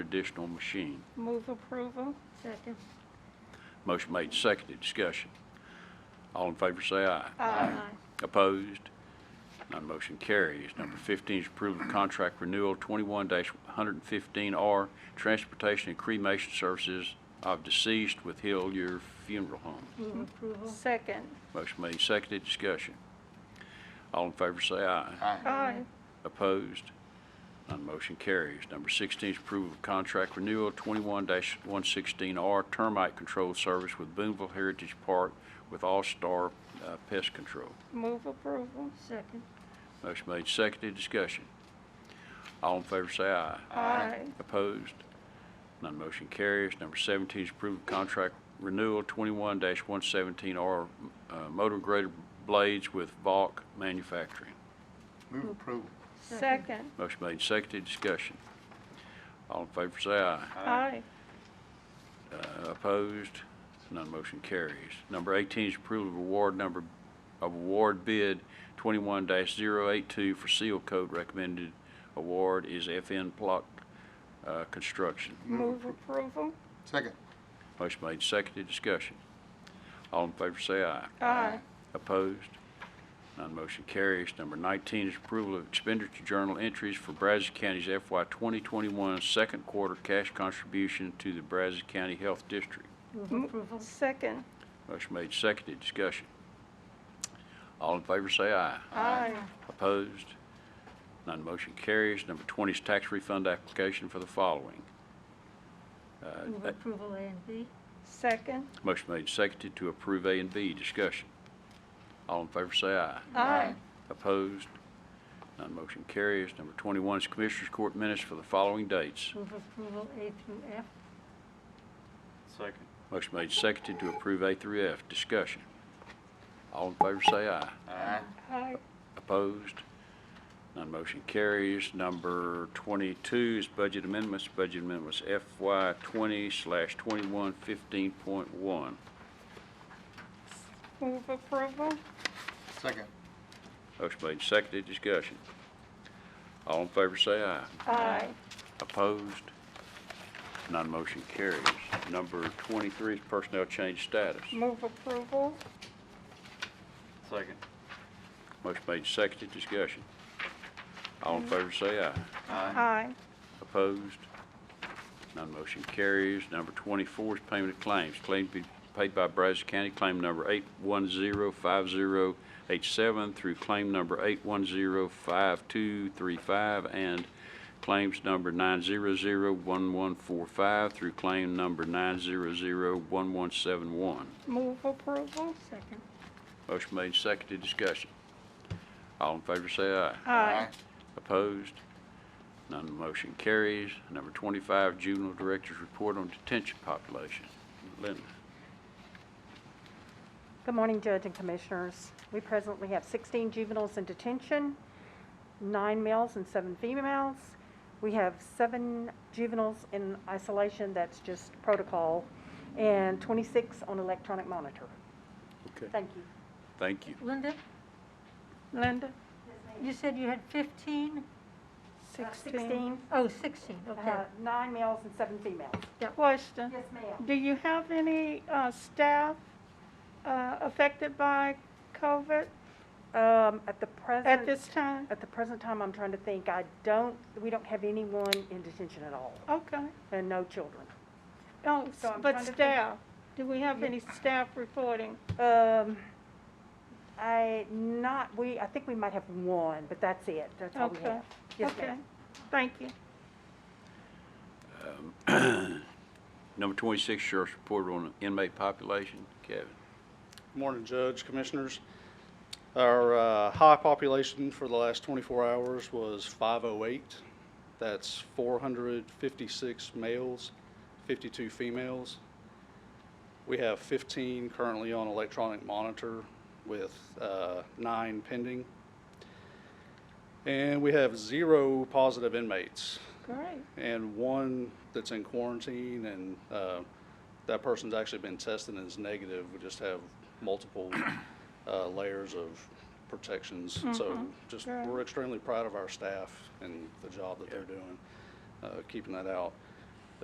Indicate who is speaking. Speaker 1: additional machine.
Speaker 2: Move approval.
Speaker 3: Second.
Speaker 1: Motion made, seconded, discussion. All in favor say aye.
Speaker 3: Aye.
Speaker 1: Opposed? None motion carries. Number 15 is approval of contract renewal 21-115R Transportation and Cremation Services of Deceased with Hillier Funeral Home.
Speaker 3: Move approval.
Speaker 2: Second.
Speaker 1: Motion made, seconded, discussion. All in favor say aye.
Speaker 2: Aye.
Speaker 1: Opposed? None motion carries. Number 16 is approval of contract renewal 21-116R Termite Control Service with Boonville Heritage Park with All Star uh, Pest Control.
Speaker 2: Move approval.
Speaker 3: Second.
Speaker 1: Motion made, seconded, discussion. All in favor say aye.
Speaker 2: Aye.
Speaker 1: Opposed? None motion carries. Number 17 is approved contract renewal 21-117R uh, Motor Grader Blades with Valk Manufacturing.
Speaker 4: Move approval.
Speaker 2: Second.
Speaker 1: Motion made, seconded, discussion. All in favor say aye.
Speaker 2: Aye.
Speaker 1: Uh, Opposed? None motion carries. Number 18 is approval of award number, of award bid 21-082 for seal coat. Recommended award is FN Block uh, Construction.
Speaker 2: Move approval.
Speaker 4: Second.
Speaker 1: Motion made, seconded, discussion. All in favor say aye.
Speaker 2: Aye.
Speaker 1: Opposed? None motion carries. Number 19 is approval of expenditure journal entries for Brazos County's FY 2021 second quarter cash contribution to the Brazos County Health District. Mm.
Speaker 3: Move approval.
Speaker 2: Second.
Speaker 1: Motion made, seconded, discussion. All in favor say aye.
Speaker 2: Aye.
Speaker 1: Opposed? None motion carries. Number 20 is tax refund application for the following. Uh,
Speaker 3: Move approval A and B.
Speaker 2: Second.
Speaker 1: Motion made, seconded to approve A and B, discussion. All in favor say aye.
Speaker 2: Aye.
Speaker 1: Opposed? None motion carries. Number 21 is Commissioners Court minutes for the following dates.
Speaker 3: Move approval A through F.
Speaker 5: Second.
Speaker 1: Motion made, seconded to approve A through F, discussion. All in favor say aye.
Speaker 4: Aye.
Speaker 2: Aye.
Speaker 1: Opposed? None motion carries. Number 22 is budget amendments. Budget amendments FY 20 slash 21, 15.1.
Speaker 2: Move approval.
Speaker 4: Second.
Speaker 1: Motion made, seconded, discussion. All in favor say aye.
Speaker 2: Aye.
Speaker 1: Opposed? None motion carries. Number 23 is personnel change status.
Speaker 2: Move approval.
Speaker 5: Second.
Speaker 1: Motion made, seconded, discussion. All in favor say aye.
Speaker 2: Aye.
Speaker 1: Opposed? None motion carries. Number 24 is payment of claims. Claims be paid by Brazos County, claim number 8105087 through claim number 8105235 and claims number 9001145 through claim number 9001171.
Speaker 2: Move approval.
Speaker 3: Second.
Speaker 1: Motion made, seconded, discussion. All in favor say aye.
Speaker 2: Aye.
Speaker 1: Opposed? None motion carries. Number 25, Juvenile Director's Report on Detention Population. Linda.
Speaker 6: Good morning, Judge and Commissioners. We presently have 16 juveniles in detention, nine males and seven females. We have seven juveniles in isolation, that's just protocol, and 26 on electronic monitor.
Speaker 1: Okay.
Speaker 6: Thank you.
Speaker 1: Thank you.
Speaker 3: Linda,
Speaker 2: Linda.
Speaker 3: Uh, you said you had 15?
Speaker 2: Sixteen.
Speaker 3: Oh, 16, okay.
Speaker 6: Uh, Nine males and seven females.
Speaker 2: Question.
Speaker 6: Yes, ma'am.
Speaker 2: Do you have any uh, staff uh, affected by COVID
Speaker 6: Um, At the present.
Speaker 2: at this time?
Speaker 6: At the present time, I'm trying to think. I don't, we don't have anyone in detention at all,
Speaker 2: Okay.
Speaker 6: and no children.
Speaker 2: Oh,
Speaker 6: So I'm
Speaker 2: but
Speaker 6: trying to think-
Speaker 2: staff, do we have any staff reporting?
Speaker 6: Um, I, not, we, I think we might have one, but that's it, that's all Oh, we
Speaker 2: Okay.
Speaker 6: have. Yes, ma'am.
Speaker 2: Okay, thank you.
Speaker 1: Number 26, Sheriff's Report on Inmate Population. Kevin.
Speaker 7: Morning, Judge, Commissioners. Our uh, high population for the last 24 hours was 508. That's 456 males, 52 females. We have 15 currently on electronic monitor with uh, nine pending. And we have zero positive inmates
Speaker 2: Great,
Speaker 7: and one that's in quarantine, and uh, that person's actually been tested and is negative. We just have multiple uh, layers of protections. So just,
Speaker 2: Right.
Speaker 7: we're extremely proud of our staff and the job that they're doing, uh, keeping that out.